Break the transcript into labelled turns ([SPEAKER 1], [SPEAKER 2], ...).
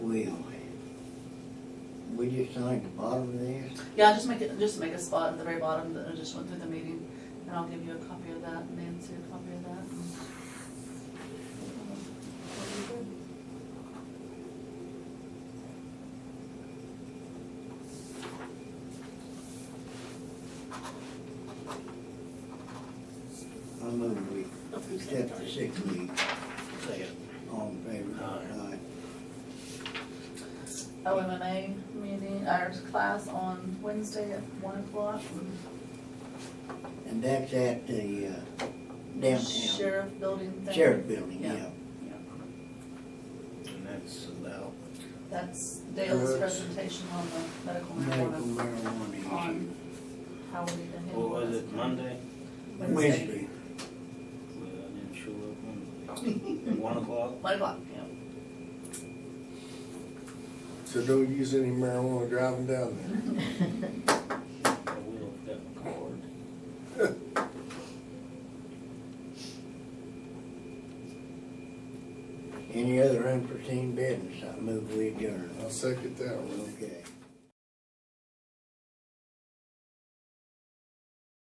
[SPEAKER 1] just like the bottom of this?
[SPEAKER 2] Yeah, just make it, just make a spot at the very bottom that I just went through the meeting, and I'll give you a copy of that, Nancy, a copy of that.
[SPEAKER 1] I move we accept the sick leave,
[SPEAKER 3] Second.
[SPEAKER 1] all in favor?
[SPEAKER 3] Aye.
[SPEAKER 2] Oh, OMMA meeting, our class on Wednesday at one o'clock.
[SPEAKER 1] Aye. And that's at the uh, downtown
[SPEAKER 2] Sheriff building thing.
[SPEAKER 1] sheriff building, yeah.
[SPEAKER 2] Yeah.
[SPEAKER 3] And that's about,
[SPEAKER 2] That's Dale's
[SPEAKER 1] Herbs.
[SPEAKER 2] presentation on the medical
[SPEAKER 1] Medical
[SPEAKER 2] marijuana,
[SPEAKER 1] marijuana
[SPEAKER 2] on how we need to handle
[SPEAKER 3] what was
[SPEAKER 2] this.
[SPEAKER 3] it, Monday?
[SPEAKER 1] issue. Wednesday,
[SPEAKER 3] Well, I didn't show up Monday. At One o'clock?
[SPEAKER 2] One o'clock, yeah.
[SPEAKER 4] So don't use any marijuana driving down there.
[SPEAKER 3] I will, got my card.
[SPEAKER 1] any other unforeseen business, I move we adjourn.
[SPEAKER 4] I'll second that one.
[SPEAKER 1] Okay.